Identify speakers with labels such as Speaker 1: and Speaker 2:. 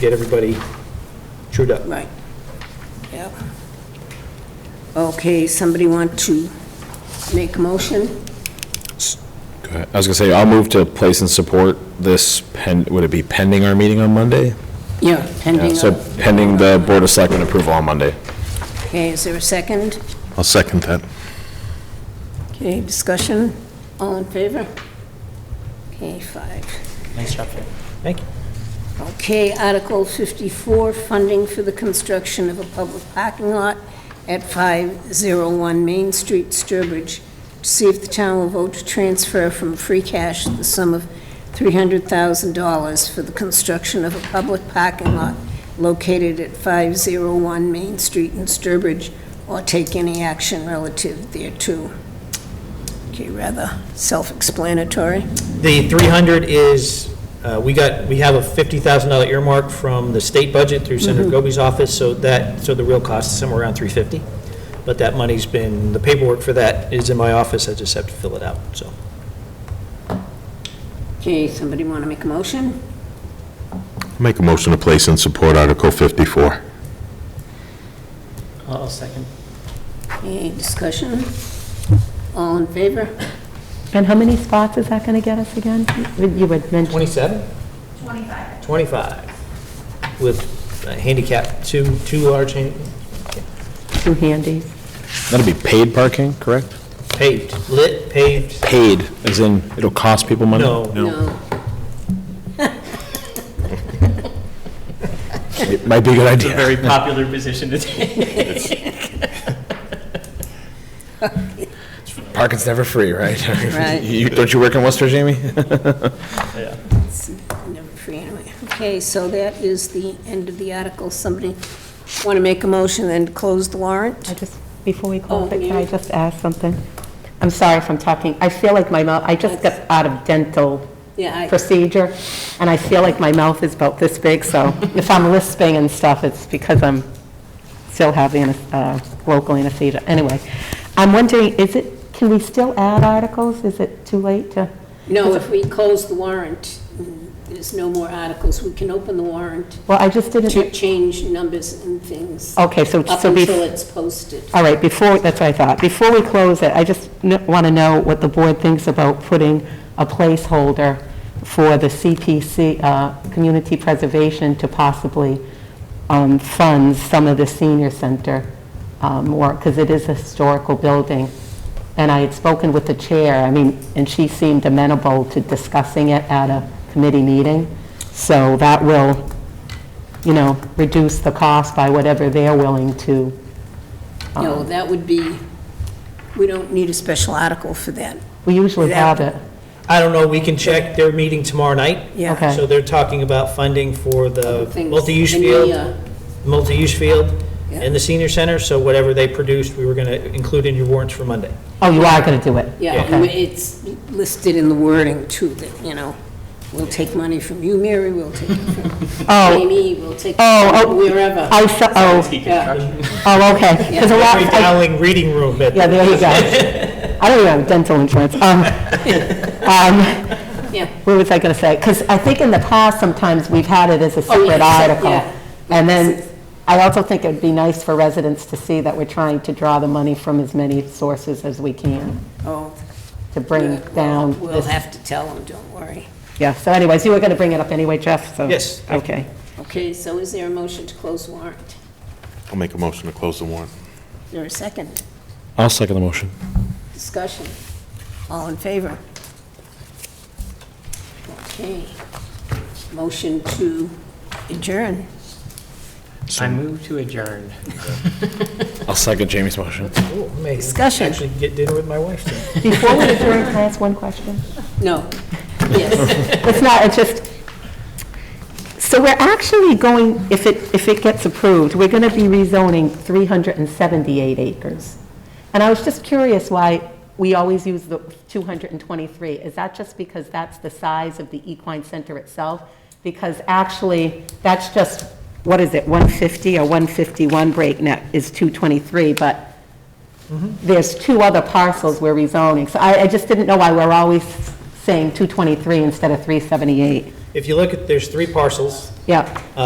Speaker 1: get everybody chewed up.
Speaker 2: Right. Yep. Okay, somebody want to make a motion?
Speaker 3: Go ahead. I was gonna say, I'll move to place and support this pen, would it be pending our meeting on Monday?
Speaker 2: Yeah,
Speaker 3: Yeah,
Speaker 2: pending.
Speaker 3: So
Speaker 2: on-
Speaker 3: pending the Board of Selectmen approval on Monday.
Speaker 2: Okay, is there a second?
Speaker 4: I'll second that.
Speaker 2: Okay, discussion? All in favor? Okay, five.
Speaker 1: Nice job, Fran. Thank you.
Speaker 2: Okay, Article 54, funding for the construction of a public parking lot at 501 Main Street, Sturbridge, to see if the town will vote to transfer from free cash the sum of $300,000 for the construction of a public parking lot located at 501 Main Street in Sturbridge, or take any action relative thereto. Okay, rather self-explanatory.
Speaker 1: The 300 is, uh, we got, we have a $50,000 earmark from the state budget through Senator Goby's office, so that, so the real cost is somewhere around 350. But that money's been, the paperwork for that is in my office, I just have to fill it out, so.
Speaker 2: Okay, somebody want to make a motion?
Speaker 4: Make a motion to place and support Article 54.
Speaker 1: I'll second.
Speaker 2: Any discussion? All in favor?
Speaker 5: And how many spots is that going to get us again? You had mentioned,
Speaker 1: 27? 25. 25, with uh, handicap, two, two large han-
Speaker 5: two handies.
Speaker 3: That'll be paid parking, correct?
Speaker 1: paved, lit, paved,
Speaker 3: Paid, as in, it'll cost people money?
Speaker 1: No.
Speaker 2: No.
Speaker 3: It might be a good
Speaker 6: It's a
Speaker 3: idea.
Speaker 6: very popular position to take.
Speaker 3: Parking's never free, right?
Speaker 2: Right.
Speaker 3: You, don't you work in Worcester, Jamie?
Speaker 2: It's never free anyway. Okay, so that is the end of the article. Somebody want to make a motion and close the
Speaker 5: I
Speaker 2: warrant?
Speaker 5: just, before we
Speaker 2: Oh,
Speaker 5: close it, can I
Speaker 2: yeah.
Speaker 5: just ask something? I'm sorry if I'm talking, I feel like my mouth, I just got out of dental
Speaker 2: Yeah, I-
Speaker 5: procedure, and I feel like my mouth is about this big, so if I'm lisping and stuff, it's because I'm still having a local anesthesia. Anyway, I'm wondering, is it, can we still add articles? Is it too late to?
Speaker 2: no, if we close the warrant, mm, there's no more articles. We can open the warrant
Speaker 5: Well, I just didn't,
Speaker 2: to change numbers and things up
Speaker 5: okay, so, so be.
Speaker 2: until it's posted.
Speaker 5: All right, before, that's what I thought. Before we close it, I just want to know what the board thinks about putting a placeholder for the CPC, uh, Community Preservation, to possibly um, fund some of the senior center um, more, because it is a historical building. And I had spoken with the chair, I mean, and she seemed amenable to discussing it at a committee meeting. So that will, you know, reduce the cost by whatever they're willing to Oh.
Speaker 2: No, that would be, we don't need a special article for that.
Speaker 5: We usually
Speaker 2: Yeah.
Speaker 5: have it.
Speaker 1: I don't know, we can check, their meeting tomorrow night.
Speaker 2: Yeah.
Speaker 5: Okay.
Speaker 1: So they're talking about funding for the
Speaker 2: Things-
Speaker 1: multi-use
Speaker 2: and the,
Speaker 1: field,
Speaker 2: uh,
Speaker 1: multi-use field
Speaker 2: Yeah.
Speaker 1: and the senior center, so whatever they produced, we were going to include in your warrants for Monday.
Speaker 5: Oh, you are going to do it?
Speaker 2: Yeah, and it's listed in the wording too, that, you know, we'll take money from you, Mary, we'll take it from
Speaker 5: Oh,
Speaker 2: Amy, we'll take
Speaker 5: oh,
Speaker 2: it
Speaker 5: oh.
Speaker 2: from wherever.
Speaker 5: I, saw- oh,
Speaker 2: Yeah,
Speaker 5: oh, okay. 'Cause a lot,
Speaker 1: Every
Speaker 5: I-
Speaker 1: Dowling reading room at
Speaker 5: yeah, there you go. I don't even have dental insurance. Um, um,
Speaker 2: yeah.
Speaker 5: What was I going to say? Because I think in the past, sometimes we've had it as a
Speaker 2: Oh, yeah,
Speaker 5: separate
Speaker 2: yeah.
Speaker 5: article. And then, I also think it'd be nice for residents to see that we're trying to draw the money from as many sources as we can
Speaker 2: Oh,
Speaker 5: to bring
Speaker 2: we'll-
Speaker 5: down
Speaker 2: We'll
Speaker 5: this.
Speaker 2: have to tell them, don't worry.
Speaker 5: Yeah, so anyways, you were going to bring it up anyway, Jeff, so.
Speaker 1: Yes, thank
Speaker 5: Okay.
Speaker 2: Okay, so is there a motion to close warrant?
Speaker 4: I'll make a motion to close the warrant.
Speaker 2: Is there a second
Speaker 3: I'll second the motion.
Speaker 2: discussion? All in favor? Okay. Motion to adjourn.
Speaker 6: I move to adjourn.
Speaker 3: I'll second Jamie's motion.
Speaker 1: Ooh, I may
Speaker 2: Discussion.
Speaker 1: Actually get dinner with my wife soon.
Speaker 5: Before we adjourn, can I ask one question?
Speaker 2: No. Yes.
Speaker 5: It's not, it's just, so we're actually going, if it, if it gets approved, we're going to be rezoning 378 acres. And I was just curious why we always use the 223. Is that just because that's the size of the equine center itself? Because actually, that's just, what is it, 150 or 151 breakneck is 223, but there's two other parcels we're rezoning. So I, I just didn't know why we're always saying 223 instead of 378.
Speaker 1: If you look at, there's three parcels.
Speaker 5: Yep.